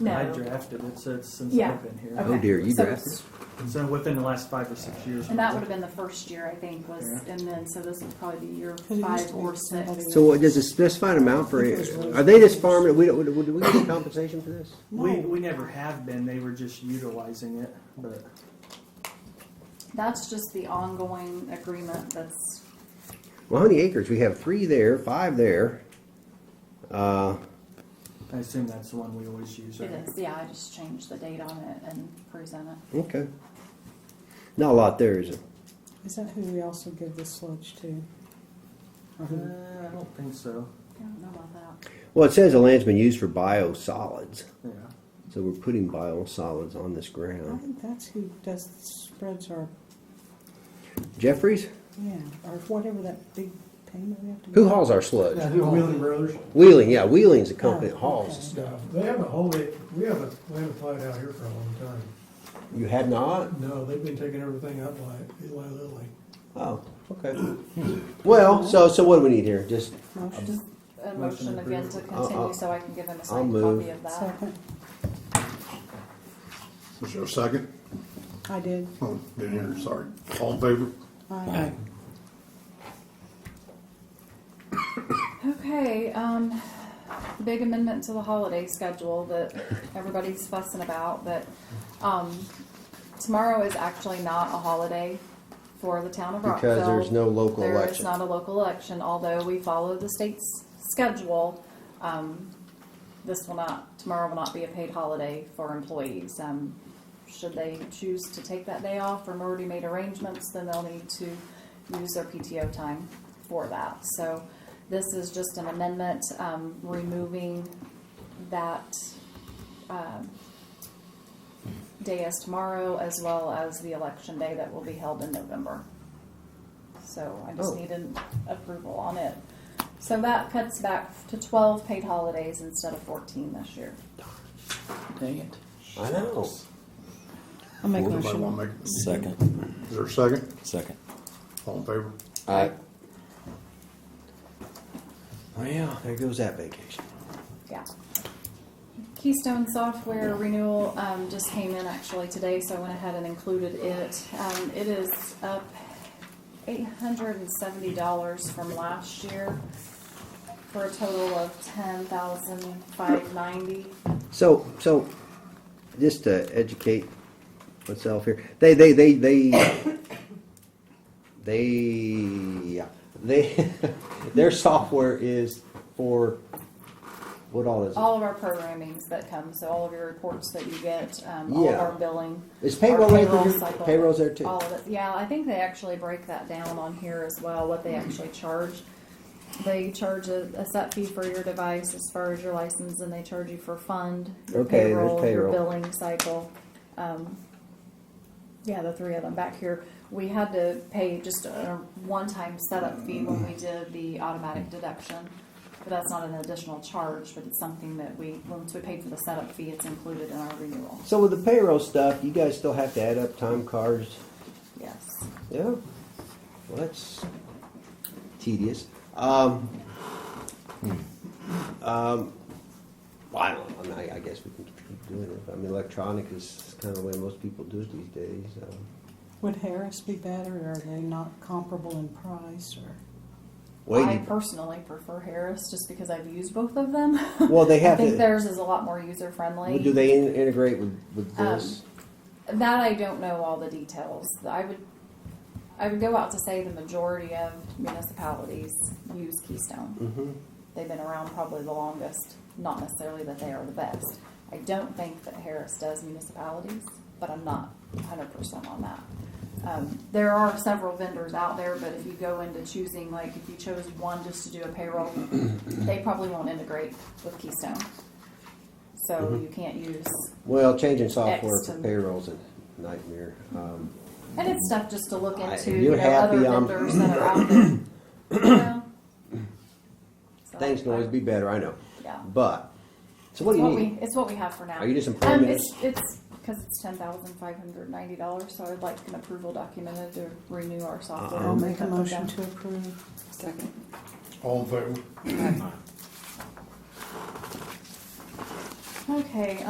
No. I drafted it, so it's since Yeah. I've been here. Okay. Oh dear, you So- drafted. So within the last five or six years. And that would have been the first year, I think, was, Yeah. and then, so this would probably be year it used five to or be six. somebody- So what, does it specify an amount for, It was really- are they just farming, it? we don't, do we get any compensation for this? We, we never have been, they were just utilizing it, but That's just the ongoing agreement that's, Well, how many acres? We have three there, five there. Uh, I assume that's the one we always use. it right? is, yeah, I just changed the date on it and present it. okay. Not a lot there, is it? Is that who we also give the sludge to? Uh, Or who- I don't think so, I don't know about that. Well, it says the land's been used for biosolids, yeah. so we're putting biosolids on this Uh, I ground. think that's who does, spreads our, Jeffries, yeah, or whatever that big payment we have to. who make. hauls our sludge? Wheeling Brothers. Wheeling, yeah, Wheeling's a company that Oh, hauls okay. stuff. Yeah, They haven't hauled it, we haven't, we haven't plowed out here for a long time. You had not? No, they've been taking everything out by Eli Lilly. Oh, okay. Well, so so what do we need here? Just Motion, A Motion motion again approved. to I'll- continue, I'll- so I can give him a I'll signed move. copy of that. second, Was there a second? I did. Oh, Didn't hear, sorry. All in favor? I, Okay, um, the big amendment to the holiday schedule that everybody's fussing about, but, um, tomorrow is actually not a holiday for the town of Rockville. because there's no local There is election. not a local election, although we follow the state's schedule. Um, this will not, tomorrow will not be a paid holiday for employees. Um, should they choose to take that day off or already made arrangements, then they'll need to use their PTO time for that. So this is just an amendment, um, removing that, um, day as tomorrow as well as the election day that will be held in November. So I just Oh. need an approval on it. So that cuts back to twelve paid holidays instead of fourteen this year. Dang it. I know. I'll make a Everybody motion. want to make, Second, is there a second? second. All in favor? I Well, there goes that vacation. Yeah. Keystone Software renewal um, just came in actually today, so I went ahead and included it. Um, It is up eight hundred and seventy dollars from last year for a total of ten thousand five ninety. So so, just to educate myself here, they they they they they yeah, they their software is for what all is it? All of our programmings that come, so all of your reports that you get, um, all of Yeah. our billing. Is our payroll there? payroll cycle, Payroll's there too. All of it, yeah, I think they actually break that down on here as well, what they actually charge. They charge a, a set fee for your device as far as your license, and they charge you for fund, your Okay, there's payroll, your payroll. billing cycle. Um, yeah, the three of them back here. We had to pay just a one-time setup fee when we did the automatic deduction. But that's not an additional charge, but it's something that we, once we paid for the setup fee, it's included in our renewal. So with the payroll stuff, you guys still have to add up time cards. Yes. Yeah. Well, that's tedious. Um, um, well, I don't know. I, mean, I- I guess we can keep doing it. I mean, electronic is kind of the way most people do it these days. Um, Would Harris be better, or are they not comparable in price, or? I waiting. personally prefer Harris just because I've used both of them. Well, they I have think to- theirs is a lot more user friendly. Do they in, integrate with, with Um, this? That I don't know all the details. I would, I would go out to say the majority of municipalities use Keystone. hmm They've been around probably the longest, not necessarily that they are the best. I don't think that Harris does municipalities, but I'm not hundred percent on that. Um, there are several vendors out there, but if you go into choosing, like if you chose one just to do a payroll, they probably won't integrate with Keystone. So you can't use, Well, changing software for Excellent. payrolls a nightmare. Um, and it's stuff just to look I- into, you're you know, other happy, um, vendors that are out there. you know? So, things can always be better. I know, Yeah. but so what it's do you what need? We, it's what we have for now. Are you just employing Um, minutes? it's, it's, cause it's ten thousand five hundred ninety dollars, so I'd like an approval documented to renew our software. I'll Uh-huh. I'll make a Something like motion that. to approve. Second. All in favor? Okay,